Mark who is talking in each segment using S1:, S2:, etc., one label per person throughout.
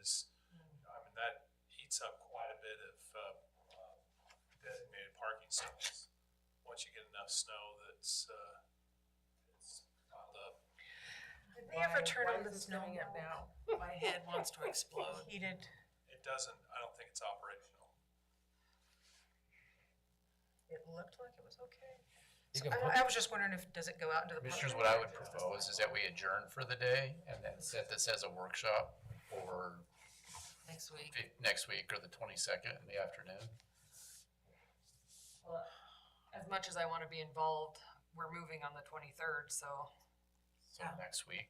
S1: is, I mean, that eats up quite a bit of, uh, uh, designated parking stalls. Once you get enough snow that's, uh, it's piled up.
S2: Did they ever turn
S3: Why
S2: on the
S3: is this
S2: snow
S3: coming up now?
S2: My head wants to explode.
S3: Heated,
S1: It doesn't, I don't think it's operational.
S3: it looked like it was okay.
S4: You
S3: So I,
S4: can put,
S3: I was just wondering if, does it go out into the public?
S4: Commissioners, what I would propose is that we adjourn for the day and then set this as a workshop for
S2: Next week.
S4: fi- next week or the twenty-second in the afternoon.
S5: As much as I want to be involved, we're moving on the twenty-third, so
S4: So
S2: Yeah.
S4: next week.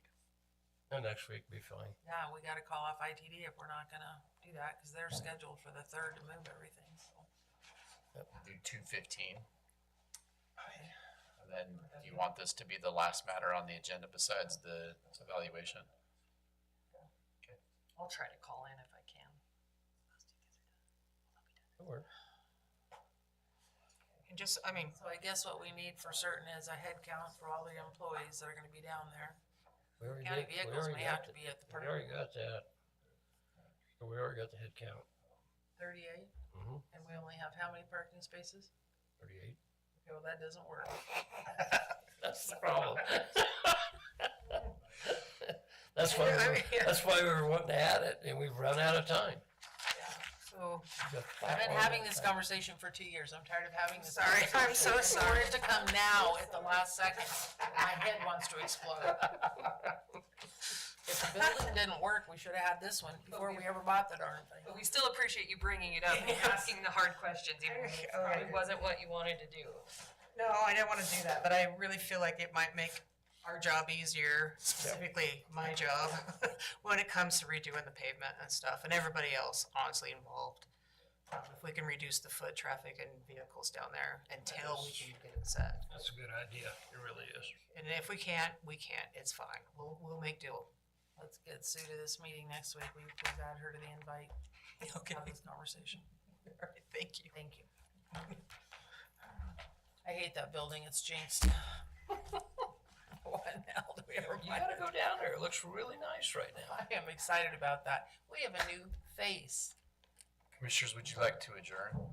S6: No, next week be fine.
S2: Yeah, we gotta call off ITD if we're not gonna do that, cause they're scheduled for the third to move everything, so.
S4: Do two fifteen. And then do you want this to be the last matter on the agenda besides the evaluation?
S5: I'll try to call in if I can.
S3: And just, I mean,
S2: So I guess what we need for certain is a head count for all the employees that are gonna be down there.
S6: We already
S2: County
S6: got- we
S2: vehicles
S6: already
S2: may
S6: got
S2: have to
S6: the-
S2: be at the
S6: We
S2: park.
S6: already got that. We already got the head count.
S2: Thirty-eight,
S6: Mm-hmm.
S2: and we only have how many parking spaces?
S6: Thirty-eight.
S2: Okay, well, that doesn't work.
S6: That's the problem. That's why,
S2: I
S6: we
S2: mean,
S6: were-
S2: yeah.
S6: that's why we were wanting to add it and we've run out of time.
S3: so,
S2: I've been having this conversation for two years. I'm tired of having this.
S3: Sorry, I'm so
S2: conversation. For it to come now at the last second, my head wants to explode. If the building didn't work, we should have had this one before we ever bought the darn thing.
S5: But we still appreciate you bringing it up and asking the hard questions, even if it probably wasn't what you wanted to do.
S3: no, I didn't want to do that, but I really feel like it might make our job easier, specifically my job, when it comes to redoing the pavement and stuff, and everybody else honestly involved. Um, If we can reduce the foot traffic and vehicles down there until we can get it set.
S6: That's a good idea. It really is.
S3: And if we can't, we can't. It's fine. We'll, we'll make do.
S2: Let's get Sue to this meeting next week. We, we've add her to the invite,
S3: Okay.
S2: have this conversation.
S3: All right, thank you.
S2: Thank you. I hate that building. It's jinxed. What the hell do we ever
S6: You
S2: buy
S6: gotta go down there. It looks really nice right now.
S2: I am excited about that. We have a new face.
S4: Commissioners, would you like to adjourn?